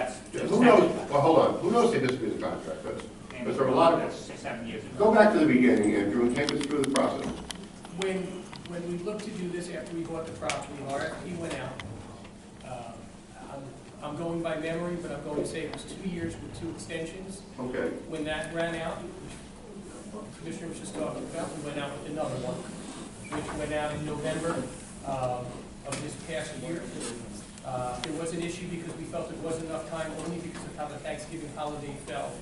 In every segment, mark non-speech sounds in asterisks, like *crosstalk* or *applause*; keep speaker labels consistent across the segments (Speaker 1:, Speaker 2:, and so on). Speaker 1: who knows, well, hold on, who knows if this is a contract, but,
Speaker 2: And
Speaker 1: but there are a lot of,
Speaker 2: that's Six, seven years ago.
Speaker 1: go back to the beginning, Andrew, and take us through the process.
Speaker 3: When, when we looked to do this after we bought the property, RFP went out. Um, I'm- I'm going by memory, but I'm going to say it was two years with two extensions.
Speaker 1: Okay,
Speaker 3: When that ran out, which the Commissioner was just talking about, we went out with another one, which went out in November um, of this past year. Uh, There was an issue because we felt there wasn't enough time, only because of how the Thanksgiving holiday fell.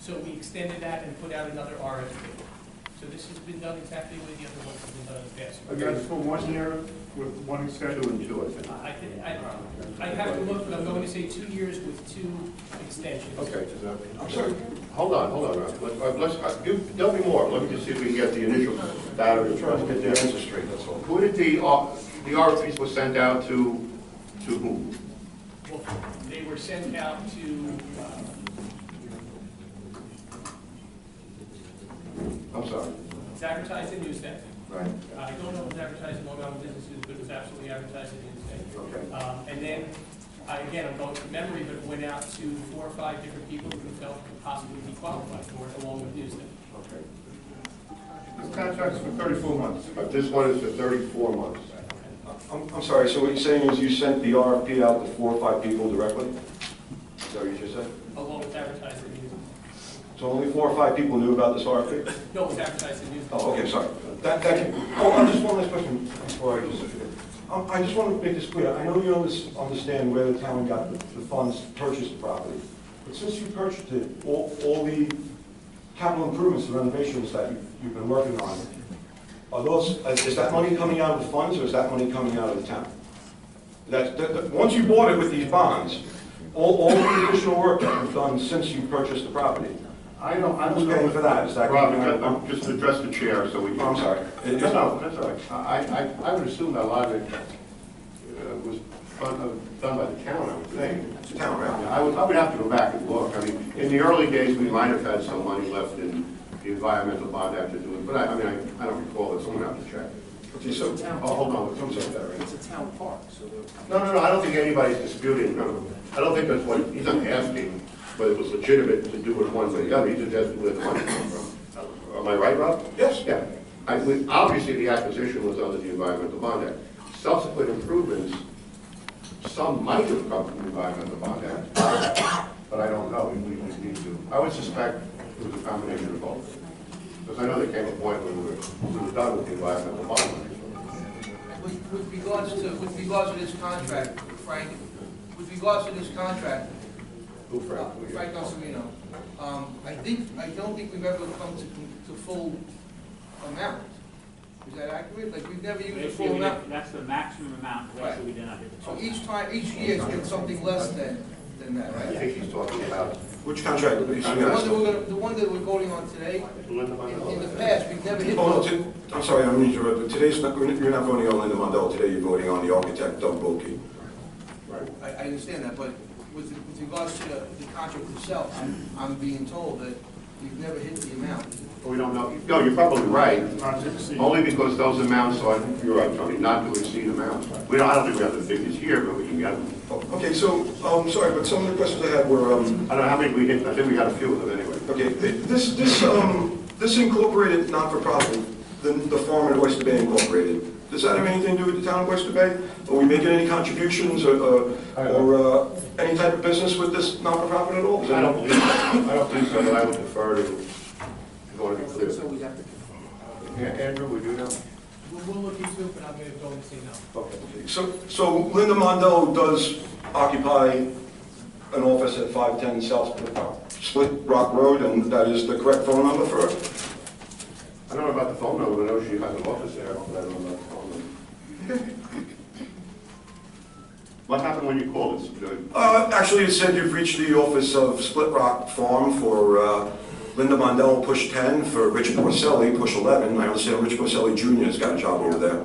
Speaker 3: So we extended that and put out another RFP. So this has been done exactly the way the other ones have been done in the past.
Speaker 4: And that's for one year with one extension?
Speaker 1: two and two, I think.
Speaker 3: I, thi- I, I have to look, but I'm going to say two years with two extensions.
Speaker 1: Okay, I'm sorry, hold on, hold on, Ralph. Let- let's, uh, you- there'll be more, let me just see if we can get the initial data. to try to get the answer straight, that's all. Who did the, uh, the RFPs was sent out to, to whom?
Speaker 3: Well, They were sent out to, uh,
Speaker 1: I'm sorry.
Speaker 3: it's advertised in Newsday.
Speaker 1: Right.
Speaker 3: I don't know if it's advertised in Long Island businesses, but it was absolutely advertised in
Speaker 1: Okay.
Speaker 3: Newsday. Um, And then, I- again, I'm going from memory, but it went out to four or five different people who felt could possibly be qualified for it, along with Newsday.
Speaker 1: Okay.
Speaker 4: This contract's for thirty-four months.
Speaker 1: But this one is for 34 months.
Speaker 5: I'm, I'm sorry, so what you're saying is you sent the RFP out to four or five people directly?
Speaker 1: Is that what you just said?
Speaker 3: Along with advertised in Newsday.
Speaker 5: So only four or five people knew about this RFP?
Speaker 3: No, it was advertised in Newsday.
Speaker 5: Oh, okay, sorry. That, that, oh, I just one last question before I just, um, I just want to make this clear. I know you under- understand where the town got the the funds to purchase the property, but since you purchased it, all, all the capital improvements, the renovations that you- you've been working on, are those, is that money coming out of the funds or is that money coming out of the town? That, that, that- once you bought it with these bonds, all, all the additional work that you've done since you purchased the property,
Speaker 1: I don't, I
Speaker 5: who's paying for that? Is that? Oh,
Speaker 1: Rob, just- I'm just address the chair so we can...
Speaker 5: I'm sorry.
Speaker 1: No, no, that's all right. I, I, I would assume that a lot of it uh, was done uh, done by the town, I would think.
Speaker 5: It's the town, right?
Speaker 1: I would, I would have to go back and look. I mean, in the early days, we might have had some money left in the environmental bond after doing, but I, I mean, I, I don't recall it. Someone have to check.
Speaker 5: Okay, so,
Speaker 1: Oh, hold on, someone said that, right?
Speaker 6: It's a town park, so they'll
Speaker 1: No, no, no, I don't think anybody's disputing, no. I don't think that's what, he's not asking whether it was legitimate to do it one way or the other, he's just asking where the money came from. Am I right, Rob?
Speaker 5: Yes.
Speaker 1: Yeah. I, we- obviously, the acquisition was under the Environmental Bond Act. Subsequent improvements, some might have come from the Environmental Bond Act, but I don't know, we, we need to. I would suspect it was a combination of both. Because I know there came a point when we were, we were done with the Environmental Bond Act.
Speaker 7: With with regards to, with regards to this contract, Frank, with regards to this contract,
Speaker 1: Who,
Speaker 7: uh,
Speaker 1: Frank?
Speaker 7: Frank Osorino, um, I think, I don't think we've ever come to, to full amount. Is that accurate? Like, we've never used the full amount.
Speaker 2: That's the maximum amount, that's what we did not.
Speaker 7: So each time, each year, it's been something less than, than that,
Speaker 1: I
Speaker 7: right?
Speaker 1: think he's talking about
Speaker 5: which contract? would you
Speaker 7: The one that
Speaker 5: suggest?
Speaker 7: we're gonna, the one that we're voting on today,
Speaker 1: Linda
Speaker 7: in,
Speaker 1: Manolo.
Speaker 7: in the past, we've never hit.
Speaker 5: Oh, no, t- I'm sorry, I'm interrupting. Today's, not- you're not voting on Linda Mondell, today you're voting on the architect, Doug Bulkey.
Speaker 1: Right.
Speaker 7: I, I understand that, but with, with regards to the, the contract itself, I'm, I'm being told that we've never hit the amount.
Speaker 1: We don't know. No, you're probably right,
Speaker 4: Not to exceed.
Speaker 1: only because those amounts are, you're right, Tony, not to exceed amounts. We don't, I don't think we have the figures here, but we can get them.
Speaker 5: Oh, Okay, so, um, sorry, but some of the questions I had were, um,
Speaker 1: I don't know how many we hit, I think we got a few of them anyway.
Speaker 5: okay, th- this, this, um, this incorporated not-for-profit, the, the farm in Oyster Bay Incorporated, does that have anything to do with the town of Oyster Bay? Are we making any contributions
Speaker 1: I
Speaker 5: or, uh,
Speaker 1: don't-
Speaker 5: or, uh, any type of business with this not-for-profit at all? Is that-
Speaker 1: I don't believe, I don't think so, but I would defer to, I want to be
Speaker 7: So
Speaker 1: clear.
Speaker 7: we have to.
Speaker 1: Yeah, Andrew, would you know?
Speaker 3: We'll, we'll look into it, but I'm going to go and say no.
Speaker 1: Okay.
Speaker 5: So, so Linda Mondell does occupy an office at 510 South Split Rock Road, and that is the correct phone number for her?
Speaker 1: I don't know about the phone number, I know she has an office there, but I don't know about the phone number. *laughs* What happened when you called us? Did-
Speaker 5: Uh, Actually, it said you've reached the office of Split Rock Farm for uh, Linda Mondell, push 10, for Rich Porcelli, push 11. I understand Rich Porcelli Jr. has got a job over there.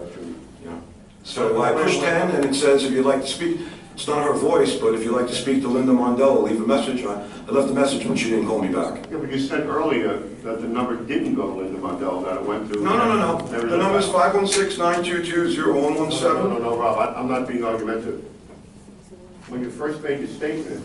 Speaker 5: Yeah. So I push 10, and it says if you'd like to speak, it's not her voice, but if you'd like to speak to Linda Mondell, leave a message. I I left a message, but she didn't call me back.
Speaker 1: Yeah, but you said earlier that the number didn't go to Linda Mondell, that it went to.
Speaker 5: No, no, no, no.
Speaker 1: Never-
Speaker 5: The number's
Speaker 1: No,
Speaker 5: 516-922-0117.
Speaker 1: No, no, no, Rob, I- I'm not being argumentative. When you first made your statement,